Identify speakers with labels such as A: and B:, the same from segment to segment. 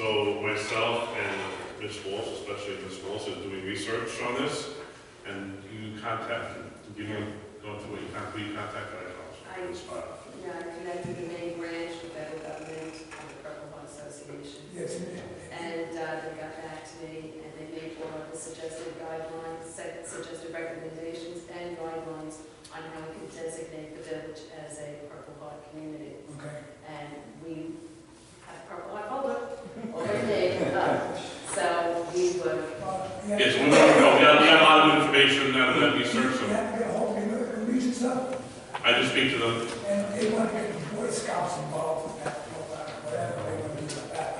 A: So myself and Ms. Walsh, especially Ms. Walsh, is doing research on this, and you contact, give me, go through it, you contact, you contact
B: I-
A: White House. I.
B: Yeah, I connected the main branch, the federal government, and the Purple Heart Association.
C: Yes, ma'am.
B: And uh, they got back to me, and they made all of the suggested guidelines, sec- suggested recommendations and guidelines on how we can designate the village as a Purple Heart community.
C: Okay.
B: And we have Purple Heart Public already made up. So we were,
C: Uh, you have-
A: Yes, we want to know, we have, we have a lot of information out of that research,
C: You
A: so
C: have to get hold of the American Legion stuff,
A: I just speak to them.
C: and they want to get the Boy Scouts involved with that, or whatever they want to do with that.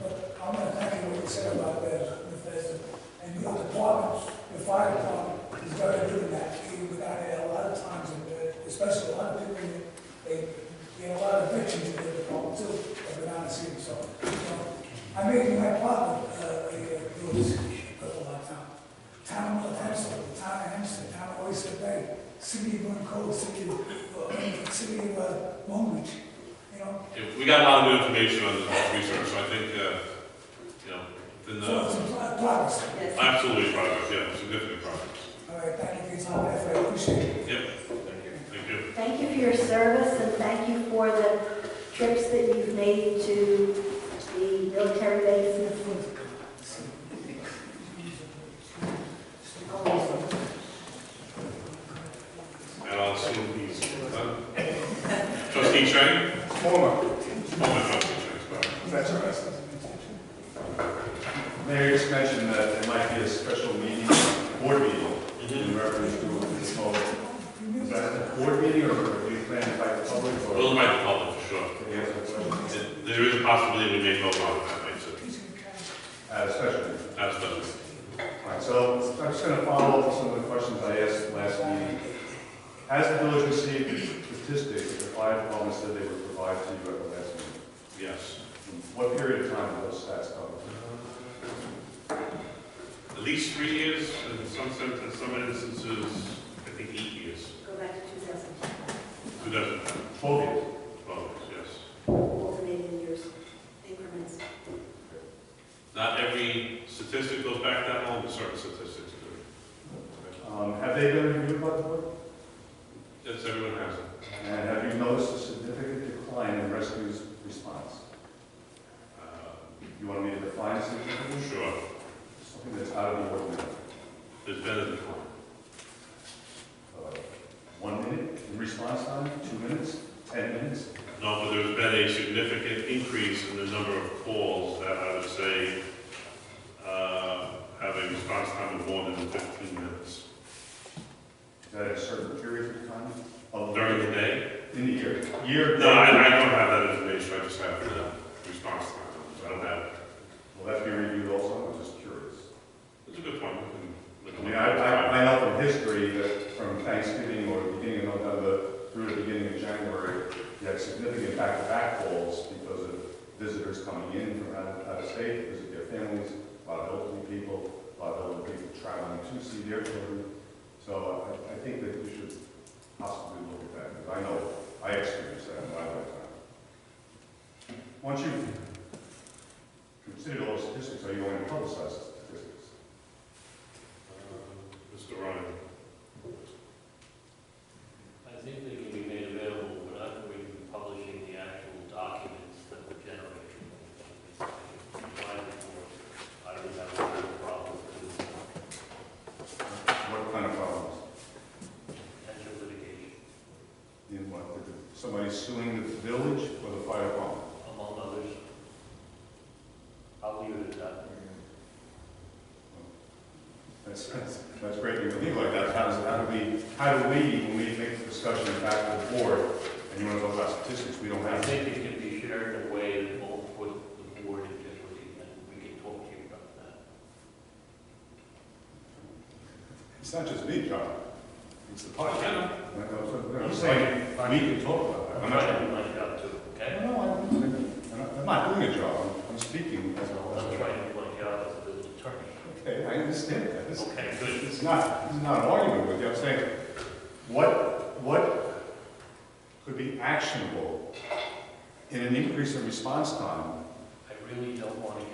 C: But I'm gonna thank you what you said about the Bethesda, and your department, the fire department, is very good in that, even without it, a lot of times, and, uh, especially a lot of people, they, they get a lot of victims in their department too, I've been honest with you, so. you know, I made my department, uh, a, a, a lot of time. Town of Hempstead, Town of Hempstead, Town of Oyster Bay, City of Monroe, City of, uh, City of uh, Long Beach, you know?
A: Yeah, We got a lot of new information on this research, so I think, uh, you know, then,
C: So it's
A: uh,
C: a pro- progress.
B: yes,
A: absolutely progress, yeah, significant progress.
C: All right, thank you for your time, I appreciate it.
A: Yep. Thank you. Thank you.
D: Thank you for your service and thank you for the trips that you've made to the military bases.
A: And I'll assume he's done. Trustee Chang?
E: Former,
A: Former trustee Chang, sorry.
E: that's all right. Mayor just mentioned that there might be a special meeting, board meeting, in reference to this whole. Is that a board meeting or are you planning to invite the public or?
A: We'll invite the public for sure.
E: Any other questions?
A: There- There is a possibility we may vote on that, right, so
E: Uh, special meeting.
A: that's done.
E: All right, so I'm just gonna follow up on some of the questions I asked last meeting. Has the village received statistics that the fire department said they would provide to you at the last meeting?
A: Yes.
E: In What period of time were those stats published?
A: At least three years, and in some sen- in some instances, I think eight years.
D: Go back to 2010,
A: Two dozen,
E: Twelve years.
A: twelve, yes.
D: alternating years, increments.
A: Not every statistic goes back that long, but certain statistics do.
E: Um, have they been reviewed by the board?
A: Yes, everyone has it.
E: And have you noticed a significant decline in rescue's response?
A: Uh,
E: You want me to define significant?
A: Sure,
E: Something that's out of the ordinary.
A: there's been a decline.
E: Uh, One minute in response time, two minutes, 10 minutes?
A: No, but there's been a significant increase in the number of calls that I would say uh, have a response time of more than 15 minutes.
E: Is that a certain period of time? Of-
A: During the day?
E: In the year? Year?
A: No, I I don't have that information, I just have the response time. I don't have,
E: Will that be reviewed also? I'm just curious.
A: it's a good point. we
E: I
A: can-
E: mean, I, I, I know from history that from Thanksgiving or the beginning of November through the beginning of January, you had significant back-to-back calls because of visitors coming in from out of, out of state to visit their families, a lot of elderly people, a lot of elderly people traveling to see their children. So I, I think that we should possibly look at that, because I know, I experienced that in my lifetime. Once you've considered all statistics, are you going to publicize the statistics?
A: Uh, Mr. Ryan,
F: I think they can be made available without we publishing the actual documents that were generated. Why before, I would have a real problem with
E: What kind of problems?
F: potential litigation,
E: In what, Did the- somebody suing the village or the fire department?
F: among others. I'll leave it at that.
E: That's, that's, that's great, you believe like that, how does, how do we, how do we, when we make the discussion back to the board, and you want to talk about statistics, we don't
F: I
E: have.
F: think it can be shared in a way that won't put the board in jeopardy, and we can talk to you about that.
E: It's not just me, John, it's the podcast.
A: Yeah.
E: I'm saying, we can talk about that.
F: I'm
E: I'm
F: trying
E: not,
F: to do my job too, okay?
E: no, I'm, I'm not doing a job, I'm- I'm speaking as a
F: I'm
E: whole.
F: trying to do my job as a business attorney.
E: Okay, I understand that, It's-
F: Okay, good.
E: It's not, it's not an argument with you, I'm saying, what, what could be actionable in an increase in response time
F: I really don't want to